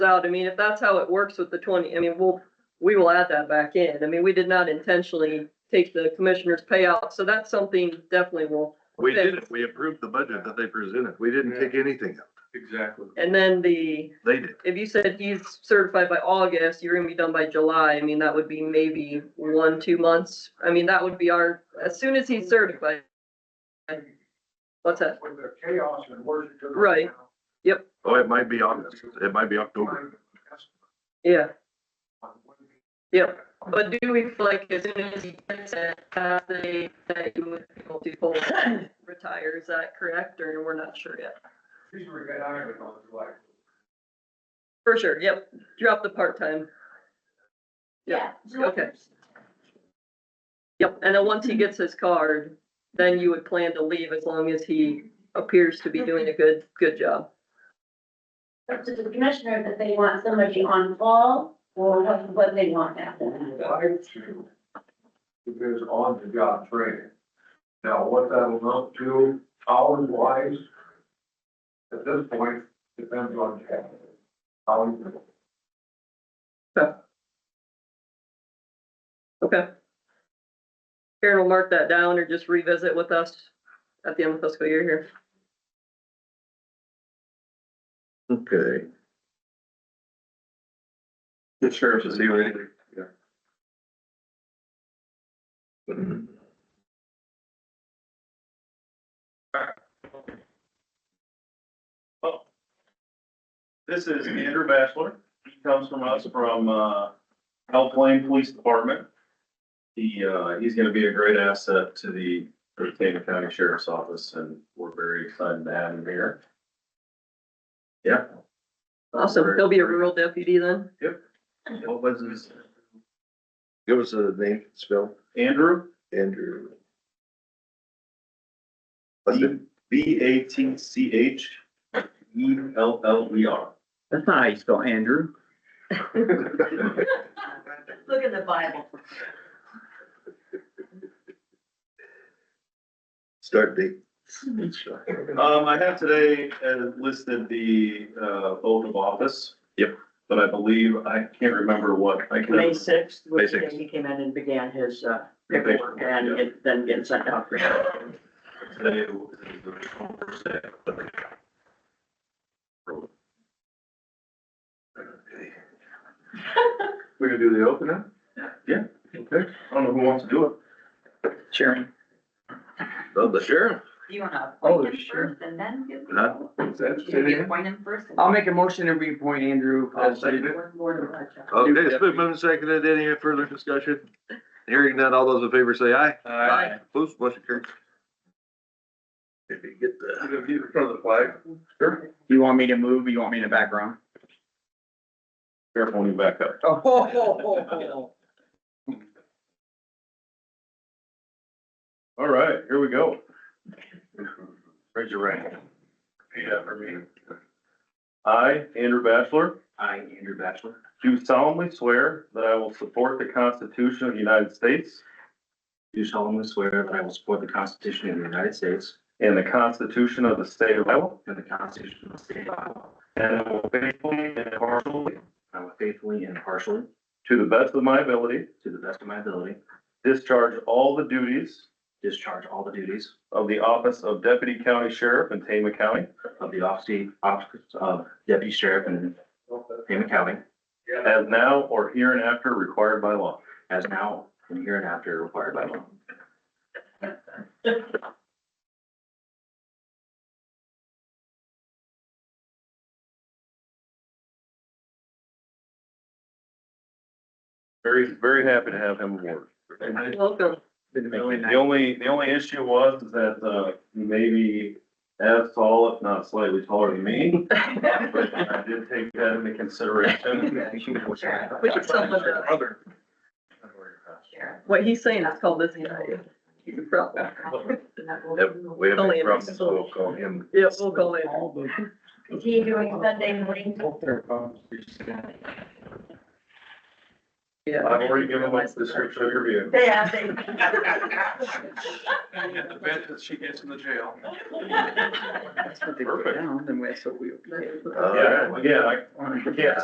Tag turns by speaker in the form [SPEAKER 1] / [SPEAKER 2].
[SPEAKER 1] out, I mean, if that's how it works with the twenty, I mean, we'll, we will add that back in. I mean, we did not intentionally take the commissioner's payout, so that's something definitely will.
[SPEAKER 2] We did it. We approved the budget that they presented. We didn't take anything out.
[SPEAKER 3] Exactly.
[SPEAKER 1] And then the,
[SPEAKER 2] They did.
[SPEAKER 1] if you said he's certified by August, you're gonna be done by July, I mean, that would be maybe one, two months. I mean, that would be our, as soon as he's certified. What's that?
[SPEAKER 3] When the chaos and worship. to the-
[SPEAKER 1] Right.
[SPEAKER 2] Oh, it might be August. It might be October.
[SPEAKER 1] Yeah, but do we feel like as soon as he gets it, that they, that you would be able to hold, retire, is that correct, or we're not sure yet?
[SPEAKER 3] She's already got iron on July.
[SPEAKER 1] For sure, yep, drop the part-time. Yeah, okay. Yep, and then once he gets his card, then you would plan to leave as long as he appears to be doing a good, good job.
[SPEAKER 4] Up to the commissioner that they want somebody on call or what, what they want after.
[SPEAKER 3] Like to, because on the job training. Now, what that'll amount to hours wise, at this point, depends on how.
[SPEAKER 1] Okay. Karen will mark that down or just revisit with us at the end of the fiscal year here.
[SPEAKER 2] Okay.
[SPEAKER 5] The sheriff is here.
[SPEAKER 6] This is Andrew Bachelor. He comes from us from, uh, Health Lane Police Department. He, uh, he's gonna be a great asset to the Decatur County Sheriff's Office and we're very excited to have him here. Yeah.
[SPEAKER 1] Awesome, he'll be a rural deputy then.
[SPEAKER 6] What was his,
[SPEAKER 2] Give us a name, spell,
[SPEAKER 6] Andrew?
[SPEAKER 2] Andrew.
[SPEAKER 6] B A T C H E L L E R.
[SPEAKER 5] That's not how you spell Andrew.
[SPEAKER 4] Look in the Bible.
[SPEAKER 2] Start date.
[SPEAKER 6] Um, I have today uh, listed the, uh, oath of office.
[SPEAKER 2] Yep.
[SPEAKER 6] But I believe, I can't remember what. I can.
[SPEAKER 7] May sixth, was the
[SPEAKER 2] May
[SPEAKER 7] day
[SPEAKER 2] 6th.
[SPEAKER 7] he came in and began his uh,
[SPEAKER 6] Thank you.
[SPEAKER 7] paperwork and it- then getting sent out for him.
[SPEAKER 6] Today was the first day of the program.
[SPEAKER 3] We can do the opening?
[SPEAKER 6] Okay, I don't know who wants to do it.
[SPEAKER 5] Sharon.
[SPEAKER 2] Oh, the sheriff.
[SPEAKER 4] You wanna
[SPEAKER 5] Oh,
[SPEAKER 4] appoint him
[SPEAKER 5] sure.
[SPEAKER 4] first and then give?
[SPEAKER 2] Huh?
[SPEAKER 3] Is that
[SPEAKER 4] Should we appoint him first? and-
[SPEAKER 5] I'll make a motion to reappoint Andrew.
[SPEAKER 2] I'll second it.
[SPEAKER 4] We're more than that, Jeff.
[SPEAKER 2] Okay, it's been moved and seconded. Any further discussion? Hearing none, all those in favor say aye.
[SPEAKER 5] Aye.
[SPEAKER 2] Opposed, motion carries. If you get the.
[SPEAKER 3] in front of the flag?
[SPEAKER 5] You want me to move? You want me in the background?
[SPEAKER 6] Careful when you back up.
[SPEAKER 5] Oh.
[SPEAKER 6] All right, here we go. Raise your right hand. Repeat after me. I, Andrew Bachelor,
[SPEAKER 5] I, Andrew Bachelor,
[SPEAKER 6] do solemnly swear that I will support the Constitution of the United States
[SPEAKER 5] do solemnly swear that I will support the Constitution of the United States
[SPEAKER 6] and the Constitution of the State of Iowa,
[SPEAKER 5] and the Constitution of the State of Iowa.
[SPEAKER 6] and I will faithfully and impartially,
[SPEAKER 5] I will faithfully and impartially,
[SPEAKER 6] to the best of my ability,
[SPEAKER 5] to the best of my ability,
[SPEAKER 6] discharge all the duties
[SPEAKER 5] discharge all the duties
[SPEAKER 6] of the office of Deputy County Sheriff in Tama County
[SPEAKER 5] of the office office of Deputy Sheriff in Pima County
[SPEAKER 6] as now or hereinafter required by law.
[SPEAKER 5] as now and hereinafter required by law.
[SPEAKER 6] Very, very happy to have him aboard.
[SPEAKER 1] Welcome.
[SPEAKER 6] The only, the only issue was is that, uh, maybe as tall, if not slightly taller than me. But I did take that into consideration.
[SPEAKER 1] We can sum it up.
[SPEAKER 4] Sheriff.
[SPEAKER 1] What he's saying is called busy night. He's a problem.
[SPEAKER 2] Yep, we have
[SPEAKER 1] Only
[SPEAKER 2] a
[SPEAKER 1] in
[SPEAKER 2] problem, so
[SPEAKER 1] Mexico.
[SPEAKER 2] we'll call him.
[SPEAKER 1] Yeah, we'll go in.
[SPEAKER 4] Is he doing Sunday morning?
[SPEAKER 1] Yeah.
[SPEAKER 6] I've already given my description of your view.
[SPEAKER 4] They have, they.
[SPEAKER 3] And the bed that she gets in the jail.
[SPEAKER 5] That's what they put down, then that's what we.
[SPEAKER 2] All right.
[SPEAKER 6] Yeah, yeah, I, yeah,